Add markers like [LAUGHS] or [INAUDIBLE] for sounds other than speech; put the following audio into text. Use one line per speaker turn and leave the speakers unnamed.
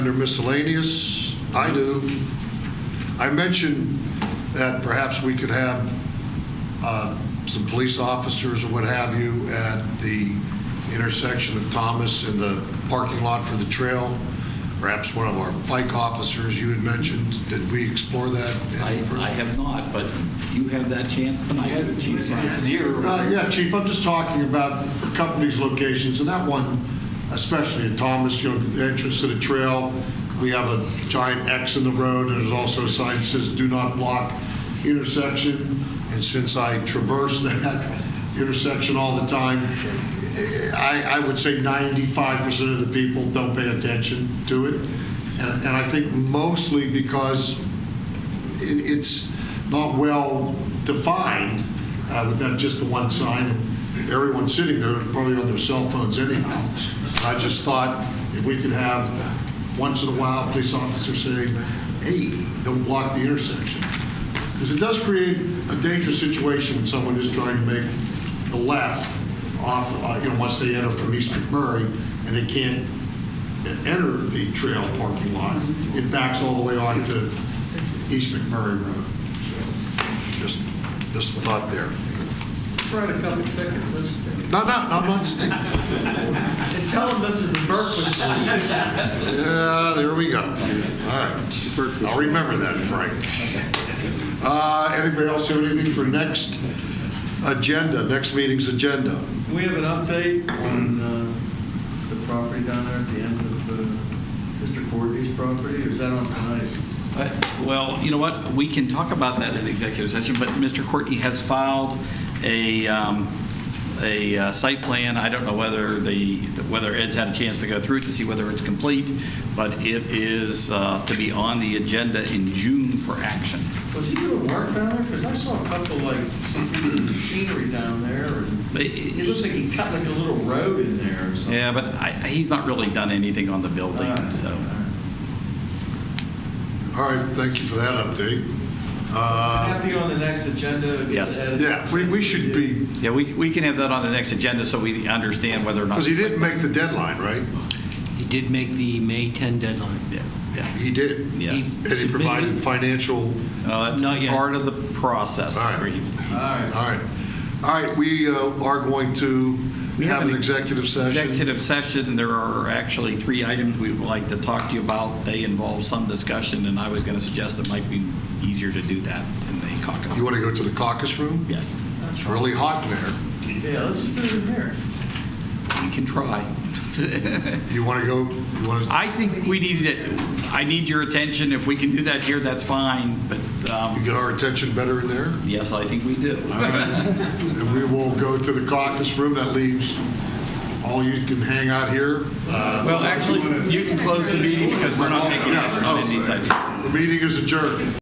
Under miscellaneous, I do. I mentioned that perhaps we could have uh, some police officers or what have you at the intersection of Thomas and the parking lot for the trail. Perhaps one of our bike officers you had mentioned. Did we explore that?
I,
any further?
I have not, but you have that chance tonight, Chief.
Uh, Yeah, Chief, I'm just talking about a couple of these locations, and that one especially in Thomas, you know, the entrance to the trail, we have a giant X in the road, and there's also a sign that says, "Do not block intersection." And since I traverse [LAUGHS] that intersection all the time, I, I would say 95% of the people don't pay attention to it. And and I think mostly because it- it's not well defined uh, with that, just the one sign. Everyone sitting there is probably on their cell phones anyhow. I just thought if we could have, once in a while, a police officer say, hey, don't block the intersection. Because it does create a dangerous situation when someone is trying to make the left off, uh, you know, once they enter from East McMurray, and they can't enter the trail parking lot. It backs all the way on to East McMurray Road. So, Just, just a thought there.
Write a couple tickets, let's,
No, no, no, I'm not saying.
and tell them this is the Berkeley.
Yeah, there we go. All right. I'll remember that, Frank. Uh, Anybody else have anything for next agenda, next meeting's agenda?
We have an update on uh, the property down there at the end of uh, Mr. Courtney's property, or is that on tonight?
Uh, Well, you know what, we can talk about that in executive session, but Mr. Courtney has filed a, um, a uh, site plan. I don't know whether the, whether Ed's had a chance to go through it to see whether it's complete, but it is uh, to be on the agenda in June for action.
Was he doing work down there? Because I saw a couple, like, some pieces of machinery down there, and
But-
it looks like he cut like a little road in there or something.
Yeah, but I, he's not really done anything on the building, so.
All right, thank you for that update. Uh,
Happy on the next agenda. get
Yes.
that-
Yeah, we, we should be,
Yeah, we, we can have that on the next agenda so we understand whether or not.
because he didn't make the deadline, right?
He did make the May 10 deadline.
Yeah, yeah.
He did.
Yes.
And he provided financial,
Uh,
Not
That's
yet.
part of the process.
All right.
Agreed.
All right.
all right. All right, we uh, are going to
We have
have an
an
executive session.
Executive session, there are actually three items we would like to talk to you about. They involve some discussion, and I was going to suggest it might be easier to do that in the caucus.
You want to go to the caucus room?
Yes,
It's really hot in there.
Yeah, let's just do it in there.
we can try.
You want to go, you want to,
I think we need it, I need your attention. If we can do that here, that's fine, but,
you
um,
get our attention better in there?
yes, I think we do.
[LAUGHS] And we will go to the caucus room. That leaves all you can hang out here. Uh,
Well, actually, you can close the meeting because we're not taking action on any side.
The Oh, meeting is adjourned.